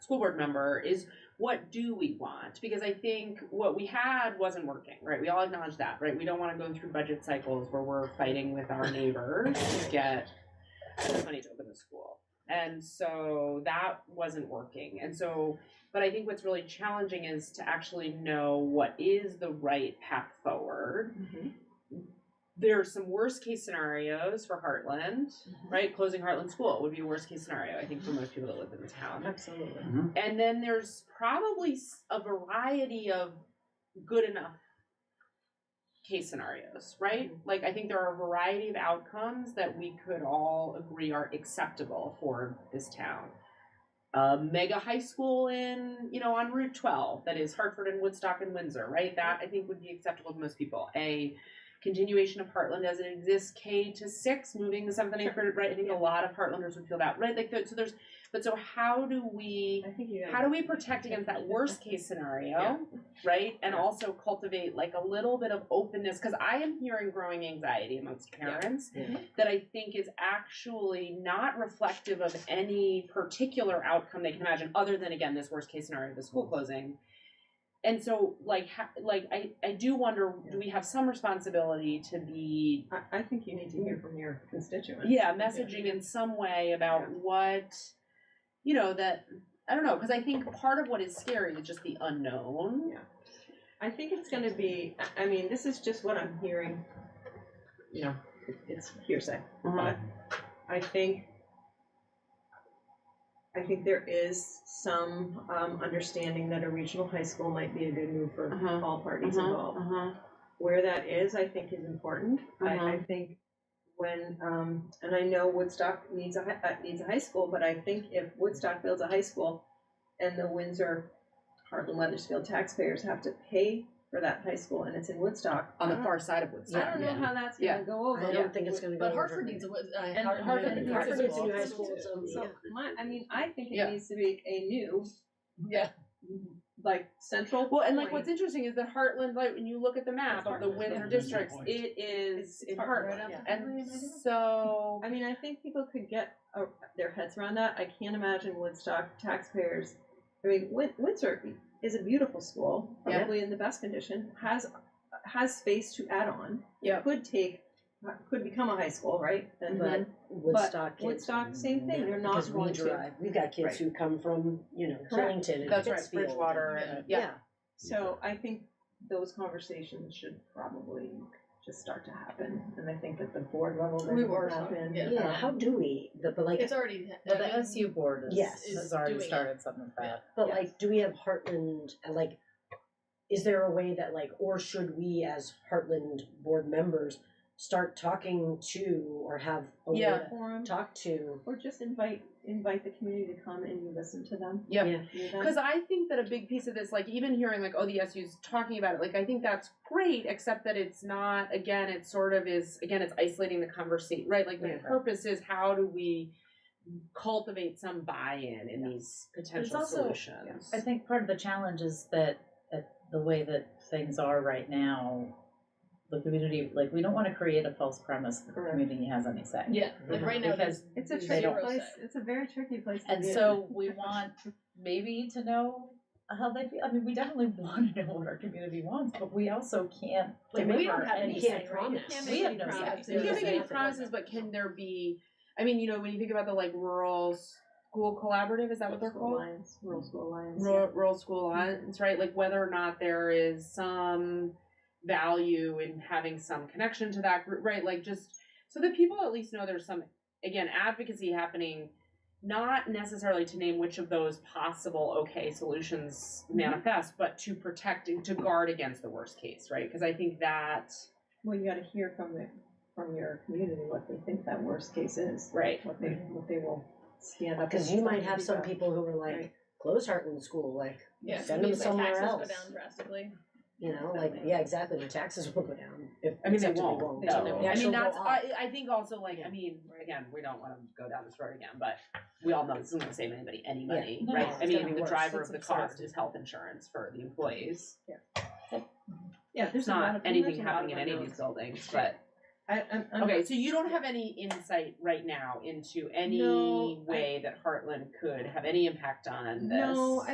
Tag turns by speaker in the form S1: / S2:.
S1: school board member is what do we want? Because I think what we had wasn't working, right? We all acknowledge that, right? We don't want to go through budget cycles where we're fighting with our neighbors to get money to open the school. And so that wasn't working. And so, but I think what's really challenging is to actually know what is the right path forward.
S2: Mm-hmm.
S1: There are some worst case scenarios for Heartland, right? Closing Heartland School would be a worst case scenario, I think, for most people that live in the town.
S2: Absolutely.
S1: And then there's probably s- a variety of good enough case scenarios, right? Like I think there are a variety of outcomes that we could all agree are acceptable for this town. A mega high school in, you know, on Route 12 that is Hartford and Woodstock and Windsor, right? That I think would be acceptable to most people. A continuation of Heartland as it exists, K to six, moving to something for right. I think a lot of Heartlanders would feel that, right? Like th- so there's, but so how do we?
S2: I think you.
S1: how do we protect against that worst case scenario
S2: Yeah.
S1: right and
S2: Yeah.
S1: also cultivate like a little bit of openness because i am hearing growing anxiety amongst parents
S2: Yeah.
S1: that i think is actually not reflective of any particular outcome they can imagine other than again this worst case scenario of the
S2: Mm-hmm.
S1: school closing and so like ha- like i i do wonder do we have some responsibility to be
S2: I, I think you need to hear from your constituents.
S1: yeah messaging in some way about
S2: Yeah.
S1: what you know that i don't know because i think part of what is scary is just the unknown
S2: I think it's going to be. I- I mean, this is just what I'm hearing. You know, it- it's hearsay. But I think, I think there is some um, understanding that a regional high school might be a good move for
S1: Uh-huh.
S2: all parties involved.
S1: Mm-hmm.
S2: Where that is, I think, is important. I, I think when, um, and I know Woodstock needs a hi- uh, needs a high school, but I think if Woodstock builds a high school, and the Windsor, Heartland, Weathersfield taxpayers have to pay for that high school, and it's in Woodstock.
S1: on the
S2: I don't-
S1: far side of woodstock
S2: I don't know
S3: Yeah.
S2: how that's
S1: Yeah.
S2: gonna go over.
S3: I
S2: Yeah.
S3: don't think it's gonna go.
S4: But
S3: over.
S4: Hartford needs a, uh,
S2: And
S4: Hartford,
S2: Hartford
S4: needs
S2: needs
S4: a
S2: Hartford
S4: high
S2: needs
S4: school.
S2: a new high
S3: school, so-
S2: So
S3: Yeah.
S2: my, I mean, I think
S1: Yeah.
S2: it needs to be a new,
S4: Yeah,
S2: like, central.
S1: well and like
S2: point.
S1: what's interesting is that heartland like when you look at the map of the
S5: Heartland.
S1: windsor
S5: Heartland's
S1: districts
S5: point.
S1: it is
S2: It's
S1: in
S2: Heartland,
S1: heartland
S2: yeah.
S1: and so
S2: I mean, I think people could get uh, their heads around that. I can't imagine Woodstock taxpayers. I mean, Win- Windsor is a beautiful school,
S1: Yeah.
S2: probably in the best condition. has has space to add on.
S4: Yeah. Mm-hmm.
S2: could take, could become a high school, right? And
S3: But Woodstock kids.
S2: Woodstock, same thing. They're not
S3: Because we
S2: going to.
S3: drive, we've got kids who come from, you know,
S2: Correct.
S3: Killington and Pittsfield.
S1: that's right bridgewater and yeah,
S2: So I think those conversations should probably just start to happen, and I think at the board level they
S4: We've
S2: need to
S4: already started,
S2: happen.
S4: yeah.
S3: Yeah, how do we, the, but like,
S4: it's already.
S6: Well, the SU board is,
S3: Yes.
S6: is
S4: Is
S6: already
S4: doing it.
S6: started something like that.
S3: but
S2: yes.
S3: like, do we have Heartland, uh, like, is there a way that like, or should we as Heartland board members start talking to or have a way
S1: Yeah.
S3: to
S2: Forum,
S3: talk to?
S2: or just invite invite the community to come and you listen to them.
S1: Yeah.
S3: Yeah.
S2: Hear them.
S1: Because I think that a big piece of this, like even hearing like, oh, the SU's talking about it, like I think that's great, except that it's not. Again, it sort of is. Again, it's isolating the conversation, right? Like the
S2: Yeah.
S1: purpose is how do we cultivate some buy-in in these potential
S6: also-
S1: solutions?
S6: I think part of the challenge is that uh, the way that things are right now, the community, like, we don't want to create a false premise that the
S2: Correct.
S6: community has any say. Mhm.
S4: Yeah, like right now,
S6: Because
S4: there's
S2: it's a
S6: they
S2: tricky
S6: don't-
S2: place. It's a very tricky place. To
S6: And
S2: be in.
S6: so we want maybe to know how they feel. I mean, we definitely want to know what our community wants, but we also can't
S3: Like, we don't
S6: deliver
S3: have,
S6: any
S3: we
S6: say.
S3: can't promise.
S4: can't
S6: We
S4: make
S6: have
S4: any
S6: no say.
S4: promises.
S1: You can't
S4: Yeah.
S1: make any promises, but can there be? I mean, you know, when you think about the like rural school collaborative, is that what they're
S2: School
S1: called?
S2: alliance, rural school alliance.
S1: rural, rural school lines, right? Like whether or not there is some value in having some connection to that group, right? Like just so that people at least know there's some again advocacy happening, not necessarily to name which of those possible okay solutions manifest, but to protect and to guard against the worst case, right? Because I think that
S2: Well, you got to hear from the from your community what they think that worst case is,
S1: right.
S2: what they what they will stand up.
S3: Uh, Cause
S2: and
S3: you might
S2: stand
S3: have some
S2: about.
S3: people who are like,
S2: Right.
S3: close Heartland School, like,
S4: yeah,
S3: send them
S4: means like
S3: somewhere
S4: taxes
S3: else.
S4: go down drastically.
S3: You know, like, yeah, exactly, the taxes will go down. if-
S1: I mean, they
S3: except if
S1: won't.
S3: won't.
S1: though.
S3: They
S1: I
S3: actually
S1: mean,
S3: go
S1: that's.
S3: up.
S1: I, I think also like. I
S3: Yeah.
S1: mean, again, we don't want to go down this road again, but we all know this isn't going to save anybody any
S3: Yeah.
S1: money,
S6: No,
S1: right?
S3: it's
S1: I
S3: gonna
S1: mean,
S3: be
S1: the
S3: worse.
S1: driver
S3: It's
S1: of the
S3: absurd.
S1: cost is health insurance for the employees.
S2: Yeah, there's
S1: It's
S2: a lot
S1: not
S2: of- there's
S1: anything
S2: a lot
S1: happening in any of
S2: unknowns.
S1: these buildings, but
S2: I, I'm, I'm
S1: Okay, so you don't have any insight right now into any
S2: No, I-
S1: way that Heartland could have any impact on this.
S2: No,